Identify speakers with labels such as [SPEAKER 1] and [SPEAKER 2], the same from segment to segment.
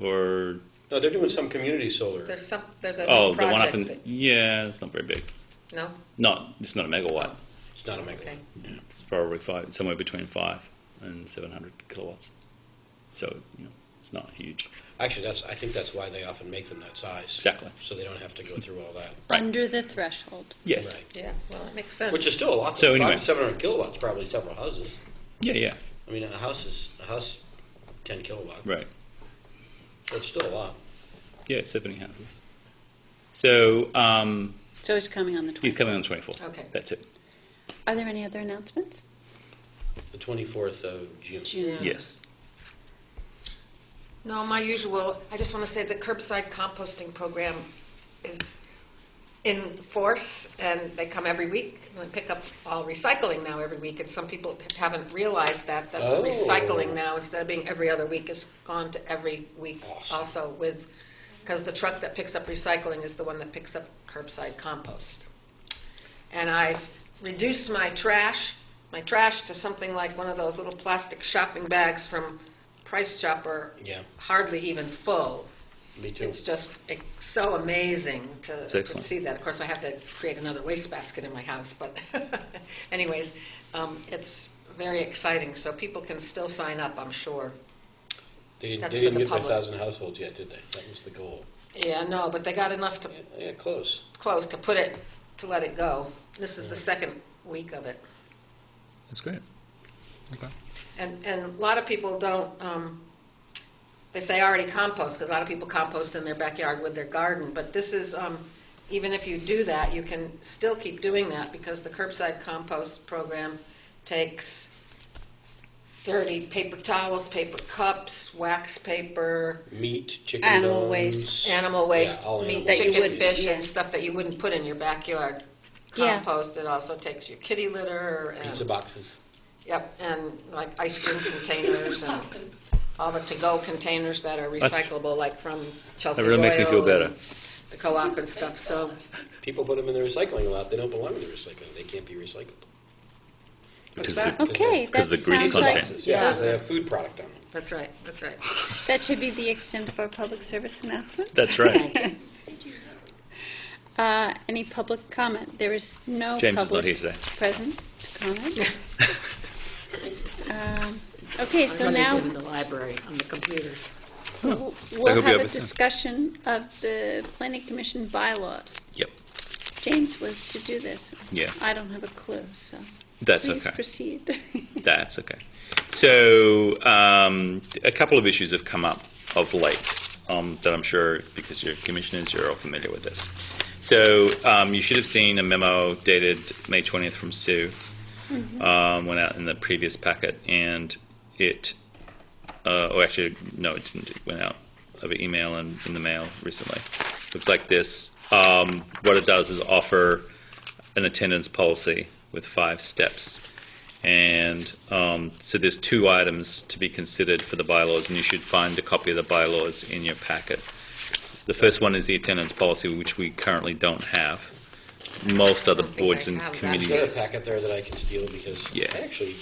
[SPEAKER 1] or
[SPEAKER 2] No, they're doing some community solar.
[SPEAKER 3] There's some, there's a
[SPEAKER 1] oh, the one up
[SPEAKER 3] project
[SPEAKER 1] in
[SPEAKER 3] that,
[SPEAKER 1] yeah, it's not very big.
[SPEAKER 3] no?
[SPEAKER 1] Not it's not a megawatt.
[SPEAKER 2] It's not a megawatt.
[SPEAKER 3] Okay.
[SPEAKER 1] It's probably five, somewhere between five and seven hundred kilowatts. So you know, it's not huge.
[SPEAKER 2] Actually, that's, I think that's why they often make them that size.
[SPEAKER 1] Exactly.
[SPEAKER 2] So they don't have to go through all that.
[SPEAKER 1] Right.
[SPEAKER 4] Under the threshold.
[SPEAKER 1] Yes.
[SPEAKER 2] Right.
[SPEAKER 3] Yeah, well, that makes sense.
[SPEAKER 2] Which is still a lot.
[SPEAKER 1] So anyway.
[SPEAKER 2] Seven hundred kilowatts, probably several houses.
[SPEAKER 1] Yeah. Yeah.
[SPEAKER 2] I mean, a house is, a house, ten kilowatt.
[SPEAKER 1] Right.
[SPEAKER 2] So it's still a lot.
[SPEAKER 1] Yeah. It's seventy houses. So um,
[SPEAKER 4] So it's coming on the
[SPEAKER 1] he's
[SPEAKER 4] 20th.
[SPEAKER 1] coming on the twenty fourth.
[SPEAKER 3] Okay.
[SPEAKER 1] That's it.
[SPEAKER 4] Are there any other announcements?
[SPEAKER 2] The twenty-fourth of June.
[SPEAKER 3] Mm.
[SPEAKER 4] June.
[SPEAKER 1] Yes.
[SPEAKER 3] No, my usual, I just want to say the curbside composting program is in force, and they come every week, and they pick up all recycling now every week, and some people haven't realized that, that
[SPEAKER 2] Oh.
[SPEAKER 3] the recycling now, instead of being every other week, is gone to every week
[SPEAKER 2] Awesome.
[SPEAKER 3] also with, because the truck that picks up recycling is the one that picks up curbside compost. And I've reduced my trash, my trash to something like one of those little plastic shopping bags from Price Chopper
[SPEAKER 2] Yeah.
[SPEAKER 3] hardly even full.
[SPEAKER 2] Me too.
[SPEAKER 3] It's just it's so amazing to, to
[SPEAKER 1] excellent.
[SPEAKER 3] see that. Of course, I have to create another wastebasket in my house, but anyways, um, it's very exciting. So people can still sign up, I'm sure.
[SPEAKER 2] They didn't,
[SPEAKER 3] That's
[SPEAKER 2] they
[SPEAKER 3] for
[SPEAKER 2] didn't
[SPEAKER 3] the
[SPEAKER 2] get five
[SPEAKER 3] public.
[SPEAKER 2] thousand households yet, did they? That was the goal.
[SPEAKER 3] Yeah, no, but they got enough to
[SPEAKER 2] Yeah, yeah, close.
[SPEAKER 3] close to put it to let it go. This is the second week of it.
[SPEAKER 1] That's great. Okay.
[SPEAKER 3] And, and a lot of people don't, um, they say already compost, because a lot of people compost in their backyard with their garden, but this is, um, even if you do that, you can still keep doing that, because the curbside compost program takes dirty paper towels, paper cups, wax paper,
[SPEAKER 2] Meat, chicken
[SPEAKER 4] Animal
[SPEAKER 2] bones,
[SPEAKER 4] waste.
[SPEAKER 3] animal waste,
[SPEAKER 2] Yeah, all
[SPEAKER 3] meat,
[SPEAKER 2] animal
[SPEAKER 4] That you
[SPEAKER 3] chicken,
[SPEAKER 4] wouldn't-
[SPEAKER 3] fish, and
[SPEAKER 4] yeah.
[SPEAKER 3] stuff that you wouldn't put in your backyard.
[SPEAKER 4] Yeah.
[SPEAKER 3] Compost, it also takes your kitty litter and.
[SPEAKER 2] Pizza boxes.
[SPEAKER 3] Yep, and like ice cream containers and all the to-go containers that are recyclable, like from Chelsea
[SPEAKER 1] really makes me feel
[SPEAKER 3] Royal
[SPEAKER 1] better.
[SPEAKER 3] and The co-op and stuff, so,
[SPEAKER 2] People put them in the recycling lot. They don't belong in the recycling. They can't be recycled.
[SPEAKER 1] Because
[SPEAKER 3] that?
[SPEAKER 1] the,
[SPEAKER 4] Okay, that
[SPEAKER 1] Because the grease
[SPEAKER 4] sounds
[SPEAKER 1] content.
[SPEAKER 4] like,
[SPEAKER 2] Boxes,
[SPEAKER 3] Yeah.
[SPEAKER 2] Yeah, 'cause they have food product on them.
[SPEAKER 3] that's right, that's right.
[SPEAKER 4] that should be the extent of our public service announcement.
[SPEAKER 1] that's right.
[SPEAKER 4] Uh, Any public comment? There is no
[SPEAKER 1] James is not here
[SPEAKER 4] public
[SPEAKER 1] today.
[SPEAKER 4] present to comment. Um, Okay,
[SPEAKER 3] I
[SPEAKER 4] so
[SPEAKER 3] run into
[SPEAKER 4] now
[SPEAKER 3] it in the library on the computers.
[SPEAKER 4] we'll
[SPEAKER 1] I
[SPEAKER 4] we'll
[SPEAKER 1] hope you
[SPEAKER 4] have
[SPEAKER 1] have
[SPEAKER 4] a
[SPEAKER 1] it soon.
[SPEAKER 4] discussion of the planning commission bylaws.
[SPEAKER 1] Yep.
[SPEAKER 4] James was to do this.
[SPEAKER 1] Yeah.
[SPEAKER 4] I don't have a clue, so.
[SPEAKER 1] That's
[SPEAKER 4] please
[SPEAKER 1] okay.
[SPEAKER 4] proceed.
[SPEAKER 1] That's okay. So um, a couple of issues have come up of late um, that I'm sure, because you're commissioners, you're all familiar with this. So um, you should have seen a memo dated May 20th from Sue, um, went out in the previous packet, and it, uh, or actually, no, it didn't. It went out over email and in the mail recently. Looks like this. Um, what it does is offer an attendance policy with five steps. And um, so there's two items to be considered for the bylaws, and you should find a copy of the bylaws in your packet. The first one is the attendance policy, which we currently don't have. Most other
[SPEAKER 3] think
[SPEAKER 1] boards
[SPEAKER 3] I
[SPEAKER 1] and
[SPEAKER 3] have that.
[SPEAKER 1] committees.
[SPEAKER 2] There's a packet there that I can steal because
[SPEAKER 1] Yeah.
[SPEAKER 2] I actually,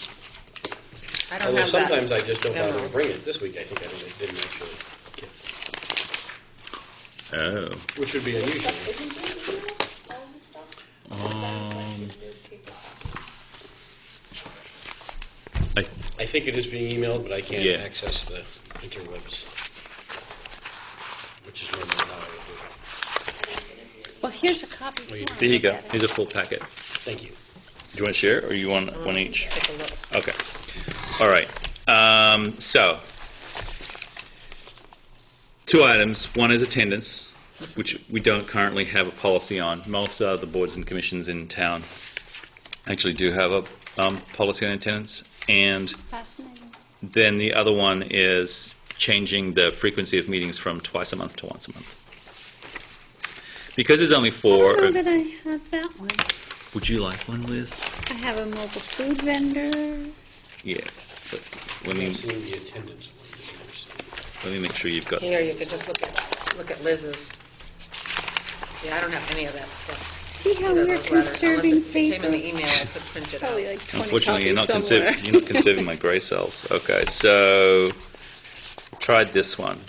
[SPEAKER 3] I don't
[SPEAKER 2] although
[SPEAKER 3] have that.
[SPEAKER 2] sometimes I just don't bother
[SPEAKER 3] memo.
[SPEAKER 2] to bring it. This week I think I didn't- didn't actually get
[SPEAKER 1] Oh,
[SPEAKER 2] it, which would be unusual.
[SPEAKER 5] Stuff isn't there in the email? All the stuff? Or is that requested in the paper?
[SPEAKER 1] Oh. I,
[SPEAKER 2] I think it is being emailed, but I can't
[SPEAKER 1] Yeah.
[SPEAKER 2] access the interwebs, which is normally how I would do it.
[SPEAKER 4] Well, here's a copy. if
[SPEAKER 2] Well, you
[SPEAKER 4] want.
[SPEAKER 1] there you go. Here's a full packet.
[SPEAKER 2] Thank you.
[SPEAKER 1] Do you want to share, or you want one each?
[SPEAKER 3] Take a look.
[SPEAKER 1] Okay. All right. Um, so, two items. One is attendance, which we don't currently have a policy on. Most of the boards and commissions in town actually do have a um, policy on attendance. And
[SPEAKER 4] It's fascinating.
[SPEAKER 1] then the other one is changing the frequency of meetings from twice a month to once a month. Because there's only
[SPEAKER 4] I
[SPEAKER 1] four.
[SPEAKER 4] don't know that Oh, I have that one.
[SPEAKER 1] Would you like one, Liz?
[SPEAKER 4] I have a mobile food vendor.
[SPEAKER 1] Yeah. But let
[SPEAKER 2] I
[SPEAKER 1] me
[SPEAKER 2] have seen the attendance one. that you received.
[SPEAKER 1] let me make sure you've got.
[SPEAKER 3] Here, you could just look at, look at Liz's. Yeah, I don't have any of that stuff.
[SPEAKER 4] See how
[SPEAKER 3] None of
[SPEAKER 4] we're
[SPEAKER 3] those letters,
[SPEAKER 4] conserving
[SPEAKER 3] Unless it came in the e-
[SPEAKER 4] paper?
[SPEAKER 3] email, I could print it out.
[SPEAKER 4] Probably like 20
[SPEAKER 1] Unfortunately, you're not, conserv-
[SPEAKER 4] copies somewhere.
[SPEAKER 1] you're not conserving my gray cells. Okay, so tried this one.